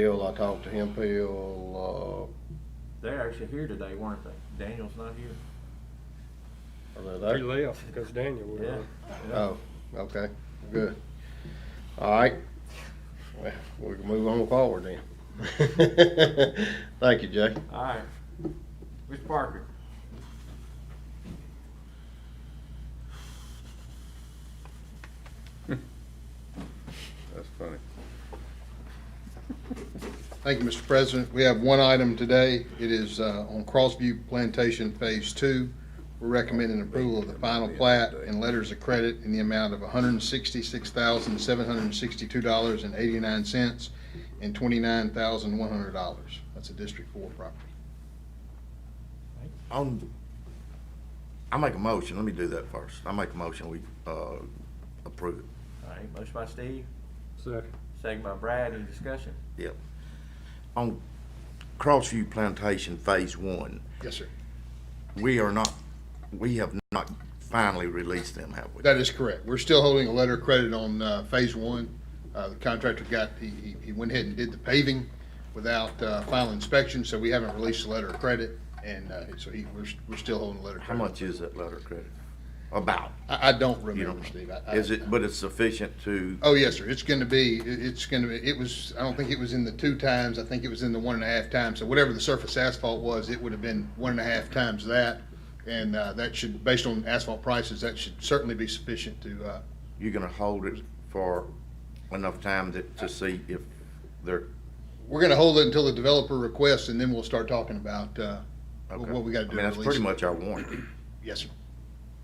Hill, I talked to him, Hill, They're actually here today, weren't they? Daniel's not here. uh, are they He there? left because Daniel was Yeah. on. Oh, okay, good. All right, well, we can move on forward then. Thank you, Jay. Oh. All right. Mr. Parker? That's funny. Thank you, Mr. President. We have one item today. It is uh, on Crossview Plantation Phase Two. We're recommending approval of the final plat and letters of credit in the amount of hundred and sixty-six thousand, seven hundred and sixty-two dollars and eighty-nine cents and twenty-nine thousand, one hundred dollars. That's a District Four property. On, I make a motion, let me do that first. I make a motion, we, uh, approve it. All right, motion by Steve, Second. second by Brad, any discussion? Yep. On Crossview Plantation Phase One, Yes, sir. we are not, we have not finally released them, have we? That is correct. We're still holding a letter of credit on uh, Phase One. Uh, The contractor got, he- he he went ahead and did the paving without uh, final inspection, so we haven't released the letter of credit. And uh, so he, we're we're still holding the letter of How credit. much is that letter of credit? About? I I don't You remember, don't know. Steve. I- I- Is it, but it's sufficient to, Oh, yes, sir. It's going to be, it- it's going to be, it was, I don't think it was in the two times. I think it was in the one and a half times. So whatever the surface asphalt was, it would have been one and a half times that. And uh, that should, based on asphalt prices, that should certainly be sufficient to uh, you're gonna hold it for enough time that, to see if they're, We're gonna hold it until the developer requests, and then we'll start talking about, uh, okay? what we gotta do. I mean, to that's release pretty it. much our warranty. Yes, sir.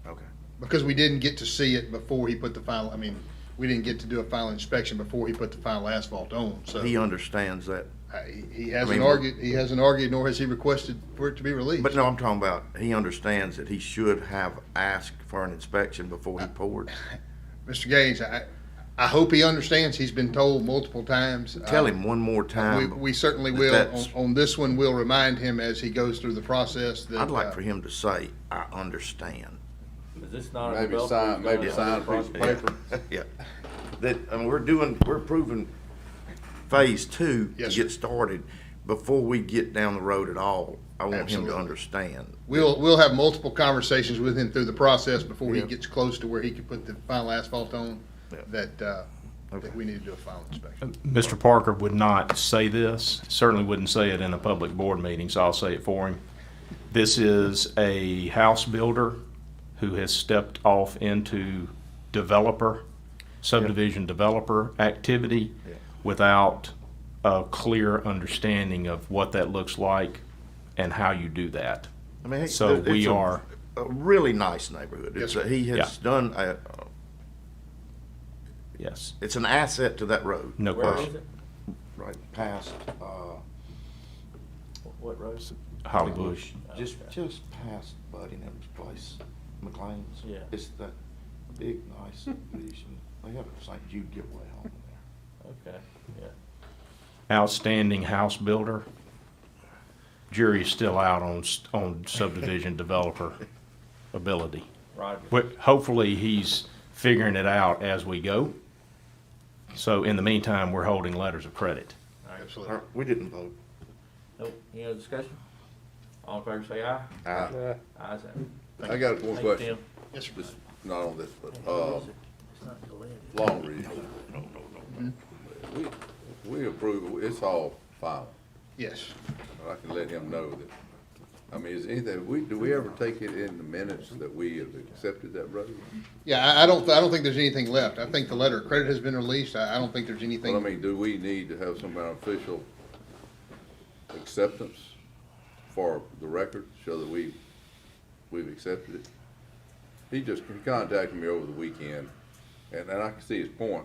Okay. Because we didn't get to see it before he put the final, I mean, we didn't get to do a final inspection before he put the final asphalt on, so. He understands that. I- He uh, I hasn't mean, we're- argued, he hasn't argued, nor has he requested for it to be released. But no, I'm talking about, he understands that he should have asked for an inspection before he poured. Uh, Mr. Gaines, I, I hope he understands. He's been told multiple times. Tell Uh, him one more We, time. we certainly that will. that's- On, on this one, we'll remind him as he goes through the process that. I'd uh, like for him to say, I understand. Is this not a Maybe developer? sign, maybe who's sign gonna- a piece of Yeah. paper. Yeah. That, and we're doing, we're approving phase two to Yes, sir. get started. Before we get down the road at all, I want him Absolutely. to understand. We'll, we'll have multiple conversations with him through the process before he Yeah. gets close to where he can put the final asphalt on, Yeah. that, uh, Okay. that we need to do a final inspection. Mr. Parker would not say this, certainly wouldn't say it in a public board meeting, so I'll say it for him. This is a house builder who has stepped off into developer, subdivision developer activity without a clear understanding of what that looks like and how you do that. I mean, So it- it's we a- are- A really nice neighborhood. It's, Yes, a- he has Yeah. done, a- Yes, it's an asset to that road. no Where is question. it? Right past, uh, What road? Holly Bush. Just, Okay. just past Buddy and him's place, McLean's. Yeah. It's that big, nice vision. They have a St. Jude giveaway home there. Okay, yeah. outstanding house builder. Jury's still out on, s- on subdivision developer ability. Roger. But hopefully, he's figuring it out as we go. So in the meantime, we're holding letters of credit. Absolutely. All right, We didn't vote. Nope, any other discussion? All in favor say aye. Aye. Uh, Ayes have it. I got one Thank question. you, Yes, sir. This, not on this, but, Tim. uh, Longview. We, we approve, it. it's all final. Yes. I can let him know that. I mean, is anything, we, do we ever take it in the minutes that we have accepted that road? Yeah, I, I don't, I don't think there's anything left. I think the letter of credit has been released. I, I don't think there's Well, I anything. mean, do we need to have some kind of official acceptance for the record, show that we, we've accepted it? He just he contacted me over the weekend, and, and I can see his point.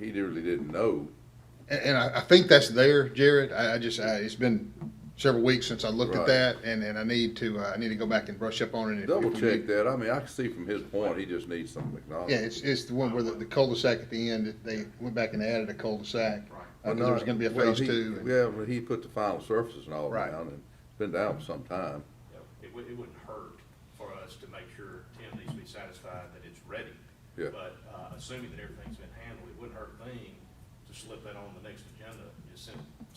He really didn't know. And, and I, I think that's there, Jared. I, I just, I, it's been several weeks since I looked at Right. that, and, and I need to, uh, I need to go back and brush up on it. If- Double if we check need- that. I mean, I can see from his point, he just needs some Yeah, acknowledgement. it's, it's the one where the, the cul-de-sac at the end, they went back and added a cul-de-sac. Uh, 'cause there was gonna be a Well, phase he- two. and- Yeah, well, he put the final surfaces and all Right. down, and been down for some time. It would, it wouldn't hurt for us to make sure Tim needs to be satisfied that it's ready. Yeah. But, uh, assuming that everything's been handled, it wouldn't hurt a thing to slip that on the next agenda, just send it